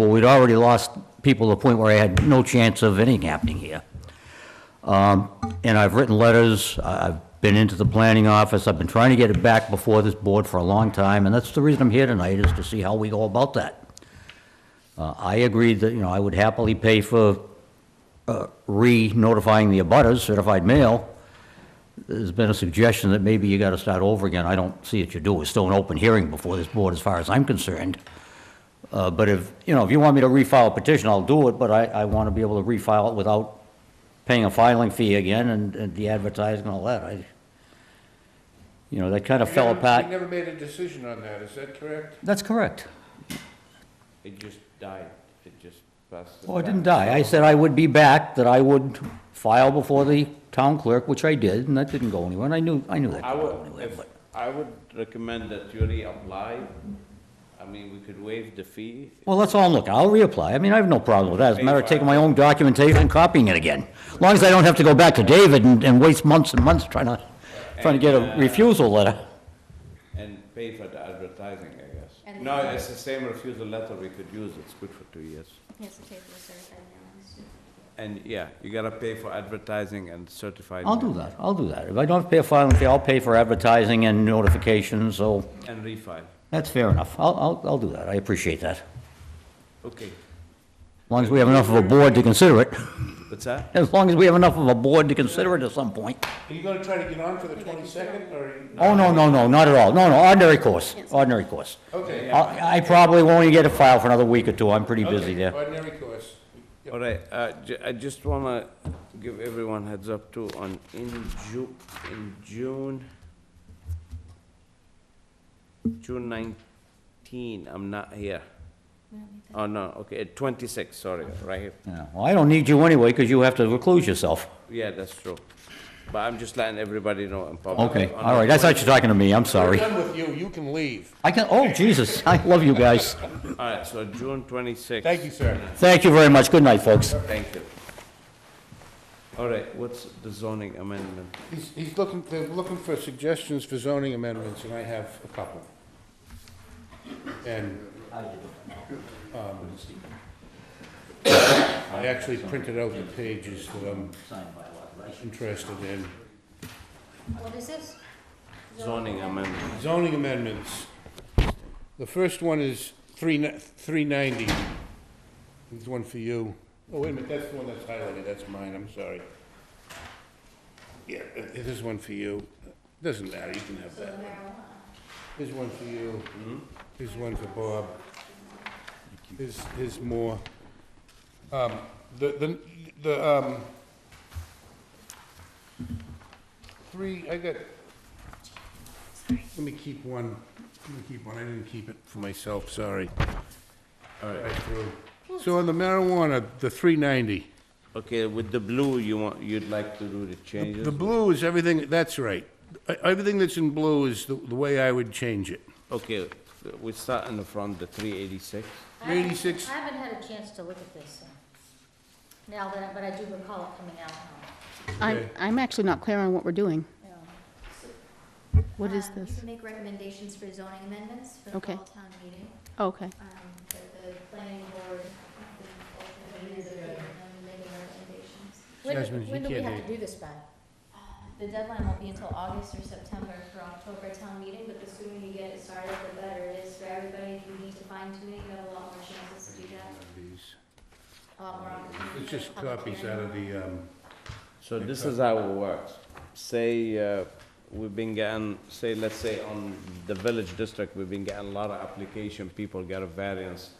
Well, we'd already lost people to the point where I had no chance of anything happening here. Um, And I've written letters, I- I've been into the planning office, I've been trying to get it back before this board for a long time, and that's the reason I'm here tonight, is to see how we go about that. Uh, I agreed that, you know, I would happily pay for uh, re-notifying the abutters, certified mail. There's been a suggestion that maybe you gotta start over again, I don't see that you do, it's still an open hearing before this board, as far as I'm concerned. Uh, But if, you know, if you want me to refile a petition, I'll do it, but I, I want to be able to refile it without paying a filing fee again and, and the advertising and all that. I, you know, that kind of fell You never- You apart. never made a decision on that, is that correct? That's correct. It just died, it just passed. Well, it didn't die. Oh, I said I would be back, that I would file before the town clerk, which I did, and that didn't go anywhere, and I knew, I knew that I didn't go would, anywhere, if, but. I would recommend that you reapply. I mean, we could waive the fee. Well, that's all, look, I'll reapply. I mean, I have no problem with that. As a matter of taking my own documentation and copying it again. As long as I don't have to go back to David and, and waste months and months trying to, trying to get uh, a refusal letter. And pay for the advertising, I guess. And- No, it's the same refusal letter, we could use, it's good for two years. Yes, the paper was certified mail. And yeah, you gotta pay for advertising and certified. I'll do that, I'll do that. If I don't have to pay a filing fee, I'll pay for advertising and notifications, so that. And refile, that's fair enough. I'll, I'll, I'll do that. I appreciate that. As okay. long as we have enough of a board to consider it. What's that? As long as we have enough of a board to consider it at some point. Are you gonna try to get on for the twenty-second, or? are you- Oh, no, no, no, not at all. No, no, ordinary course, ordinary course. Okay. I, I probably won't even get a file for another week or two. I'm pretty busy Okay, there. Ordinary course. Yep. All right, uh, ju- I just wanna give everyone heads up too, on in Ju- in June, June nineteen, I'm not here. Oh, no, okay, twenty-six, sorry, right here, Yeah, Well, I don't need you anyway, because you have to recluse yourself. yeah, that's true. But I'm just letting everybody know in public. Okay, On all the right, I thought you were talking to me, I'm We're sorry. done with you, you can leave. I can, oh, Jesus, I love you guys. twen- All right, so June twenty-six. Thank you, sir. Thank you very much, good night, folks. Thank you. All right, what's the zoning amendment? He's, he's looking, they're looking for suggestions for zoning amendments, and I have a couple. And, um, I actually printed out the pages that I'm interested in. What is this? Zoning amendment, Zoning amendments. The first one is three, ni- three ninety. There's one for you. Oh, wait a minute, that's the one that's highlighted, that's mine, I'm sorry. Yeah, uh, this is one for you. Doesn't matter, you can have that one. Here's one for you. Here's one for Bob. Here's, here's more. Um, the, the, the, um, three, I got let me keep one, let me keep one, I didn't keep it for myself, sorry. All right. So on the marijuana, the three ninety, okay, with the blue, you want, you'd like to do the changes? the blue is everything, that's right. E- Everything that's in blue is the, the way I would change it. Okay, we start in the front, the three eighty-six. I haven't- 86. I haven't had a chance to look at this, so. Now that, but I do recall it coming out. um. now. I'm, Okay. I'm actually not clear on what we're doing. Yeah. What is Um, You this? can make recommendations for zoning amendments for the Okay. fall town meeting. Oh, Okay, Um, But the planning board, the, the, making recommendations. Jasmine, When, you when do we can't have hear to do this by? The deadline won't be until August or September for October town meeting, but the sooner you get it started, the better it is for everybody. If you need to fine tune it, you have a lot more chances to do that, These. a lot more opportunities. It's just copies out of the, um, So this is how it works. Say, uh, we've been getting, say, let's say on the village district, we've been getting a lot of application, people get a variance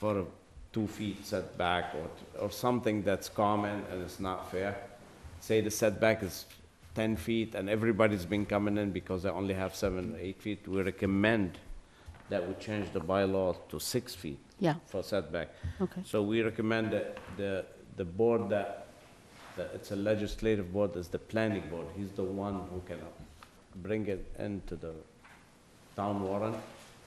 for a two feet setback or, t- or something that's common and it's not fair. Say the setback is ten feet and everybody's been coming in because they only have seven, eight feet, we recommend that we change the bylaw to six feet. Yeah. For setback. Okay. So we recommend that the, the board that, that it's a legislative board, is the planning board. He's the one who can bring it into the town warrant,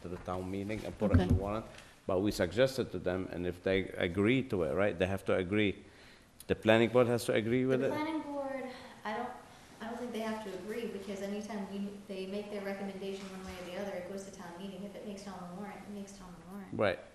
to the town meeting and put it in the Okay. warrant. But we suggested to them, and if they agree to it, right, they have to agree. The planning board has to agree with The it? planning board, I don't, I don't think they have to agree, because anytime we, they make their recommendation one way or the other, it goes to town meeting. If it makes town warrant, it makes town warrant. Right,